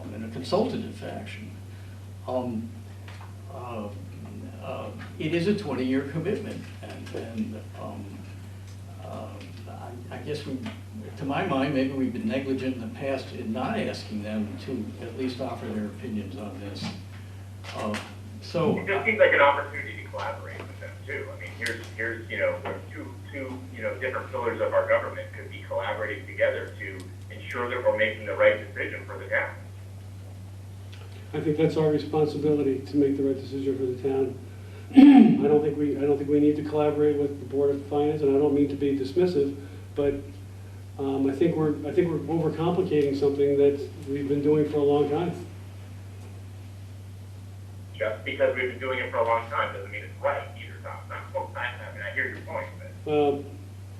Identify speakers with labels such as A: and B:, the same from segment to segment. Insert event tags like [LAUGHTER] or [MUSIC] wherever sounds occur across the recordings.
A: Um, consultative fashion. Um, uh, uh, It is a twenty-year commitment, and, and, um, uh, I, I guess we, to my mind, maybe we've been negligent in the past in not asking them to at least offer their opinions on this. Uh, So,
B: It just seems like an opportunity to collaborate with them too. I mean, here's, here's, you know, we're two, two, you know, different pillars of our government could be collaborating together to ensure that we're making the right decision for the town.
C: I think that's our responsibility to make the right decision for the town. I don't think we, I don't think we need to collaborate with the Board of Finance, and I don't mean to be dismissive, but um, I think we're, I think we're overcomplicating something that we've been doing for a long time.
B: Just because we've been doing it for a long time doesn't mean it's right either, Tom. Not both times. I mean, I hear your point, but
C: Um,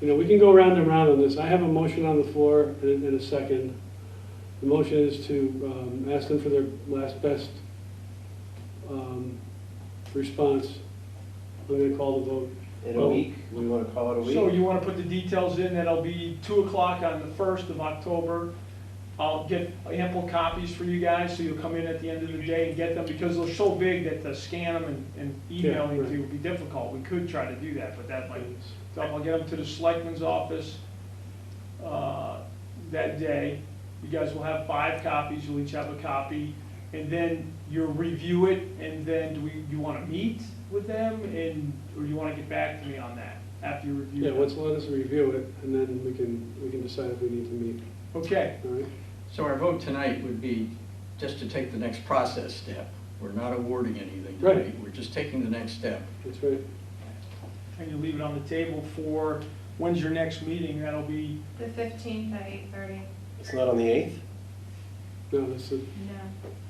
C: You know, we can go round and round on this. I have a motion on the floor in in a second. The motion is to um, ask them for their last best um, response. I'm going to call the vote.
D: In a week, we wanna call it a week?
E: So you want to put the details in, that'll be 2 o'clock on the 1st of October. I'll get ample copies for you guys, so you'll come in at the end of the day and get them, because they're so big that to scan them and- and emailing
C: Yeah,
E: it
C: right.
E: would be difficult. We could try to do that, but that might, so I'll get them to the selectman's office uh, that day. You guys will have five copies, you'll each have a copy, and then you'll review it, and then do we, you want to meet with them, and, or you want to get back to me on that after you review
C: Yeah,
E: them?
C: let's let us review it, and then we can, we can decide if we need to meet,
E: Okay,
C: all right?
A: so our vote tonight would be just to take the next process step. We're not awarding anything
C: Right.
A: tonight, we're just taking the next step.
C: That's right.
E: and you leave it on the table for, when's your next meeting? That'll be,
F: The fifteenth at eight thirty,
D: It's not on the eighth?
C: No, that's, the-
F: no,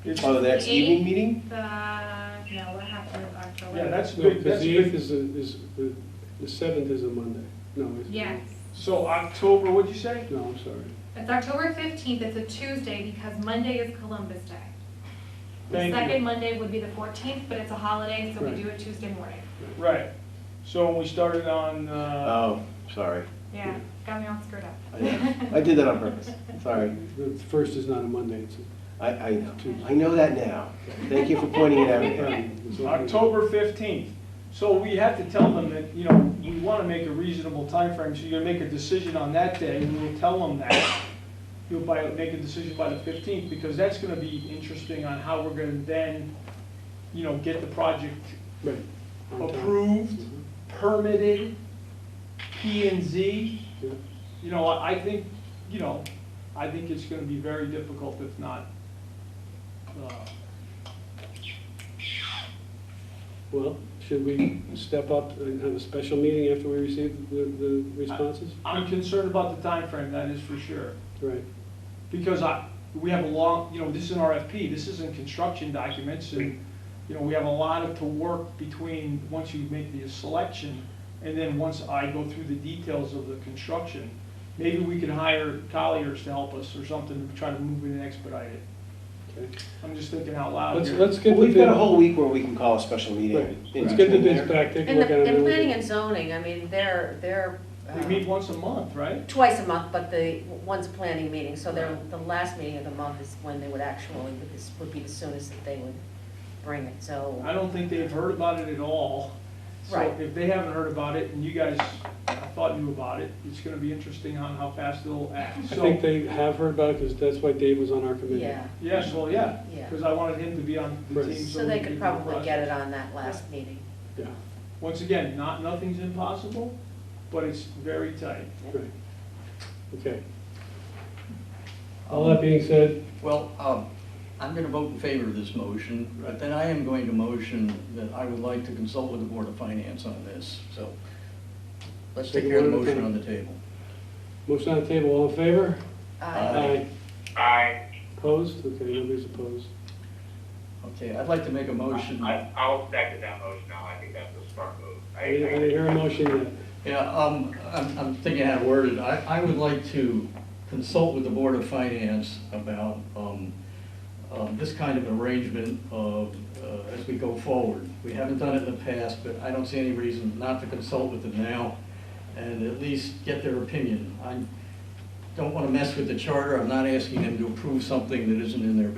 E: it's,
D: Oh, the
E: yeah,
D: next
F: The
D: evening
F: eighth?
D: meeting?
F: the, no, what happened with October?
E: that's
C: no,
E: good,
C: because
E: that's
C: the eighth
E: good.
C: is, a- is, the the seventh is a Monday. No, it's.
F: Yes,
E: So October, what'd you say?
C: No, I'm sorry.
F: it's October fifteenth, it's a Tuesday because Monday is Columbus Day. The
E: Thank you.
F: second Monday would be the fourteenth, but it's a holiday, so we
C: Right.
F: do it Tuesday morning.
E: Right, so we started on, uh,
D: Oh,
F: [LAUGHS]
D: sorry.
F: Yeah, got me all screwed up.
D: I I did that on purpose, sorry.
C: The first is not a Monday, it's a.
D: I, I know, I know that now. Thank you for pointing it
C: [LAUGHS]
D: out.
C: um, it's a-
E: October fifteenth. So we have to tell them that, you know, we want to make a reasonable timeframe, so you're gonna make a decision on that day, and we'll tell them that. You'll by, make a decision by the fifteenth, because that's gonna be interesting on how we're gonna then, you know, get the project
C: Right. on time.
E: approved,
C: Mhm.
E: permitted, P and Z.
C: Yeah.
E: You know, I I think, you know, I think it's gonna be very difficult if not, uh,
C: Well, should we step up and have a special meeting after we receive the, the responses?
E: I'm concerned about the timeframe, that is for sure.
C: Right,
E: Because I, we have a long, you know, this is an RFP, this isn't construction documents, and, you know, we have a lot of to work between, once you make the selection, and then once I go through the details of the construction, maybe we could hire colliers to help us or something, to try to move it and expedite it.
C: okay.
E: I'm just thinking out loud
C: Let's,
E: here.
C: let's get
D: Well,
C: the
D: We've got a
C: bids,
D: whole week where we can call a special
C: right,
D: meeting. in
C: let's get the
D: between
C: bids
D: there.
C: back, take a
G: And
C: look at
G: the,
C: it.
G: and
C: then we
G: planning
C: can-
G: and zoning, I mean, they're, they're. uh,
E: We meet once a month, right?
G: Twice a month, but the, one's a planning meeting, so their, the last meeting of the month is when they would actually, would this would be the soonest that they would bring it,
E: I
G: so.
E: don't think they've heard about it at all. So
G: Right.
E: if they haven't heard about it, and you guys, I thought knew about it, it's gonna be interesting on how fast they'll act,
C: I
E: so.
C: think they have heard about it, because that's why Dave was on our committee.
G: Yeah,
E: Yes, well, yeah,
G: Yeah.
E: because I wanted him to be on the
C: Right.
E: team.
G: so they
E: we
G: could
E: do the
G: probably get it
E: process.
G: on that last meeting.
C: Yeah,
E: Once again, not, nothing's impossible, but it's very tight.
C: right, okay. All that being said,
A: Well, um, I'm going to vote in favor of this motion, but then I am going to motion that I would like to consult with the Board of Finance on this, so let's take care of the motion on the table.
C: motion on the table, all in favor?
G: Uh,
C: Aye.
B: I,
C: Opposed? Okay, nobody's opposed.
A: Okay, I'd like to make a motion.
B: I, I'll second that motion now. I think that's a smart move. I-
C: I didn't I didn't
B: I-
C: hear a motion yet.
A: Yeah, um, I'm, I'm thinking how to word it. I, I would like to consult with the Board of Finance about, um, um, this kind of arrangement of, uh, as we go forward. We haven't done it in the past, but I don't see any reason not to consult with them now and at least get their opinion. I don't wanna mess with the charter. I'm not asking them to approve something that isn't in their